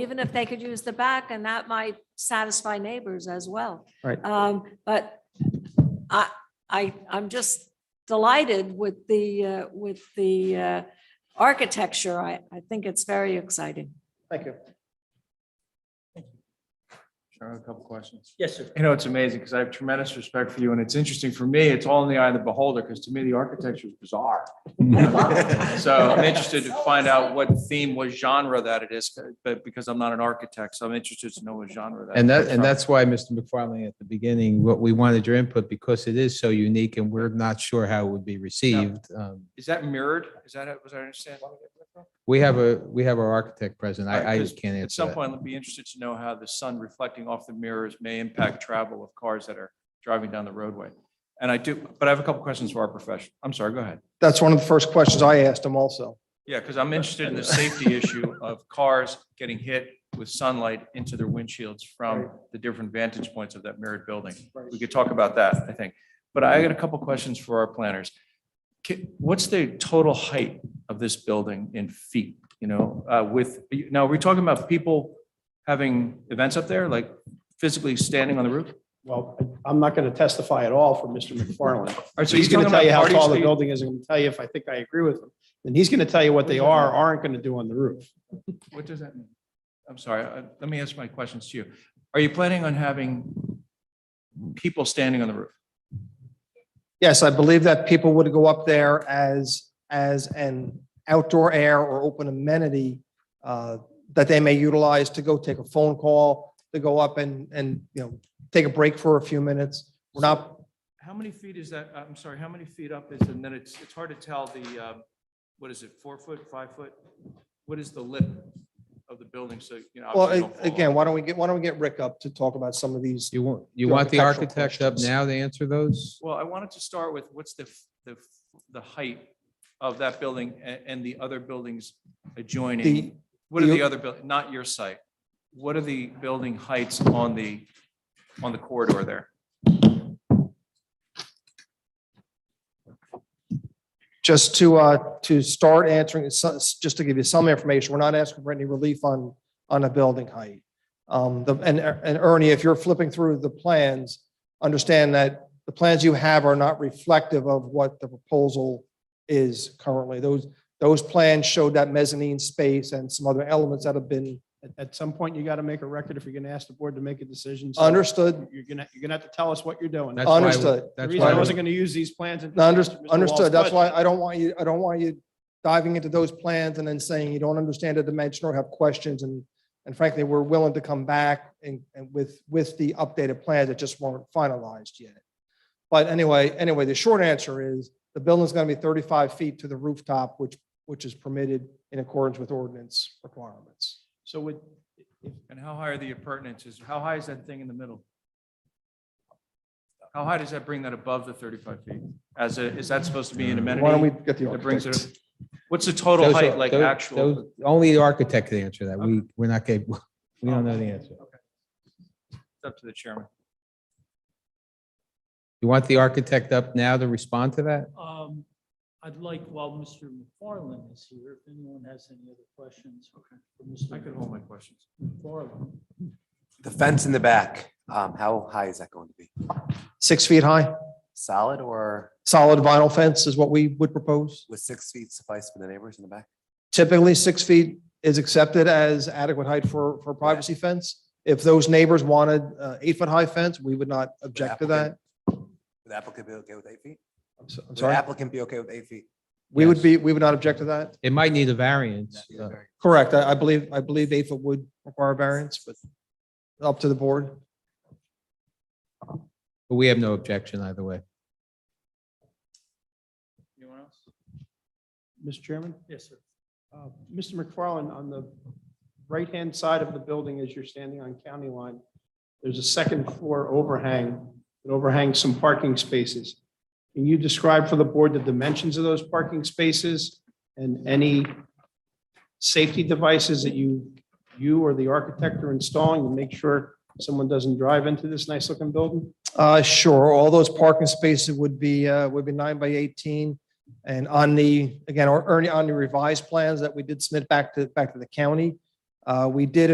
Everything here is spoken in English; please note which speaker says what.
Speaker 1: even if they could use the back, and that might satisfy neighbors as well.
Speaker 2: Right.
Speaker 1: Um, but I, I, I'm just delighted with the, uh, with the, uh, architecture. I, I think it's very exciting.
Speaker 2: Thank you.
Speaker 3: Sure, I have a couple questions.
Speaker 2: Yes, sir.
Speaker 3: You know, it's amazing because I have tremendous respect for you and it's interesting for me, it's all in the eye of the beholder because to me, the architecture is bizarre. So I'm interested to find out what theme, what genre that it is, but because I'm not an architect, so I'm interested to know what genre that.
Speaker 4: And that,
Speaker 3: is.
Speaker 4: and that's why, Mr. McFarland, at the beginning, what we wanted your input, because it is so unique and we're not sure how it would be received. Um,
Speaker 3: Is that mirrored? Is that, was I understand?
Speaker 4: We have a, we have our architect present. I, I
Speaker 3: Alright, 'cause
Speaker 4: can't
Speaker 3: At
Speaker 4: answer
Speaker 3: some
Speaker 4: that.
Speaker 3: point, I'd be interested to know how the sun reflecting off the mirrors may impact travel of cars that are driving down the roadway. And I do, but I have a couple questions for our profession. I'm sorry, go ahead.
Speaker 5: That's one of the first questions I asked him also.
Speaker 3: Yeah, because I'm interested in the safety issue of cars getting hit with sunlight into their windshields from the different vantage points of that mirrored building. We could talk about that, I think. But I got a couple questions for our planners. Ki- What's the total height of this building in feet, you know, uh, with, now, are we talking about people having events up there, like physically standing on the roof? All
Speaker 5: Well, I'm not going to testify at all for Mr. McFarland.
Speaker 3: right, so
Speaker 5: He's
Speaker 3: you're
Speaker 5: going to
Speaker 3: talking
Speaker 5: tell you how
Speaker 3: about
Speaker 5: tall the
Speaker 3: parties-
Speaker 5: building is, and tell you if I think I agree with him. And he's going to tell you what they are, or aren't going to do on the roof.
Speaker 3: What does that mean? I'm sorry, uh, let me ask my questions to you. Are you planning on having people standing on the roof?
Speaker 5: Yes, I believe that people would go up there as, as an outdoor air or open amenity uh, that they may utilize to go take a phone call, to go up and, and, you know, take a break for a few minutes. We're not,
Speaker 3: How many feet is that? uh, I'm sorry, how many feet up is, and then it's, it's hard to tell the, um, what is it, four foot, five foot? What is the lip of the building? So, you know.
Speaker 5: well,
Speaker 3: obviously you don't fall off.
Speaker 5: again, why don't we get, why don't we get Rick up to talk about some of these?
Speaker 4: You want, you
Speaker 5: The
Speaker 4: want the
Speaker 5: architectural
Speaker 4: architect up
Speaker 5: questions.
Speaker 4: now to answer those?
Speaker 3: Well, I wanted to start with what's the, f- the, f- the height of that building and, and the other buildings
Speaker 5: The-
Speaker 3: adjoining? What are
Speaker 5: the-
Speaker 3: the other, buil- not your site? What are the building heights on the, on the corridor there?
Speaker 5: Just to, uh, to start answering, so- just to give you some information, we're not asking for any relief on, on a building height. Um, the, and, and Ernie, if you're flipping through the plans, understand that the plans you have are not reflective of what the proposal is currently. Those, those plans showed that mezzanine space and some other elements that have been
Speaker 6: At, at some point, you got to make a record if you're going to ask the board to make a decision. so
Speaker 5: understood,
Speaker 6: You're gonna, you're gonna have to tell us what you're doing.
Speaker 4: That's why-
Speaker 5: Understood.
Speaker 6: The
Speaker 4: That's
Speaker 6: reason I
Speaker 4: why,
Speaker 6: wasn't going to use these plans.
Speaker 5: No, under- Understood. That's why I don't want you, I don't want you diving into those plans and then saying you don't understand the dimension or have questions. And, and frankly, we're willing to come back and, and with, with the updated plans that just weren't finalized yet. But anyway, anyway, the short answer is the building's going to be 35 feet to the rooftop, which, which is permitted in accordance with ordinance requirements.
Speaker 6: So would,
Speaker 3: And how high are the appurtenances? How high is that thing in the middle? How high does that bring that above the thirty-five feet? As a, is that supposed to be an
Speaker 4: Uh,
Speaker 3: amenity?
Speaker 5: Why don't we get the
Speaker 3: That brings
Speaker 5: architect?
Speaker 3: it, what's the total
Speaker 4: those are-
Speaker 3: height, like
Speaker 4: those-
Speaker 3: actual?
Speaker 4: those- only the architect can answer that. We, we're not capable, we don't know
Speaker 3: Oh.
Speaker 4: the answer.
Speaker 3: It's Up to the chairman.
Speaker 4: You want the architect up now to respond to that?
Speaker 7: Um, I'd like, while Mr. McFarland is here, if anyone has any other questions for
Speaker 3: I
Speaker 7: Mr.
Speaker 3: could hold my questions.
Speaker 7: McFarland.
Speaker 8: The fence in the back, um, how high is that going to be?
Speaker 5: Six feet high,
Speaker 8: Solid or
Speaker 5: solid vinyl fence is what we would propose.
Speaker 8: would six feet suffice for the neighbors in the back?
Speaker 5: Typically, six feet is accepted as adequate height for, for privacy fence. If those neighbors wanted uh, eight-foot-high fence, we would not object to that.
Speaker 8: Would the applicant be okay with eight feet?
Speaker 5: I'm so- I'm
Speaker 8: Would the
Speaker 5: sorry.
Speaker 8: applicant be okay with eight feet?
Speaker 5: We would be, we would not object to that.
Speaker 4: It might need a variance. uh,
Speaker 5: Correct. I, I believe, I believe eight-foot would require variance, but up to the board.
Speaker 4: But we have no objection either way.
Speaker 7: Anyone else?
Speaker 6: Mr. Chairman,
Speaker 7: Yes, sir.
Speaker 6: uh, Mr. McFarland, on the right-hand side of the building, as you're standing on County Line, there's a second floor overhang that overhangs some parking spaces. Can you describe for the board the dimensions of those parking spaces and any safety devices that you, you or the architect are installing to make sure someone doesn't drive into this nice-looking building?
Speaker 5: Uh, sure, all those parking spaces would be, uh, would be nine by eighteen. And on the, again, or Ernie, on the revised plans that we did submit back to, back to the county, uh, we did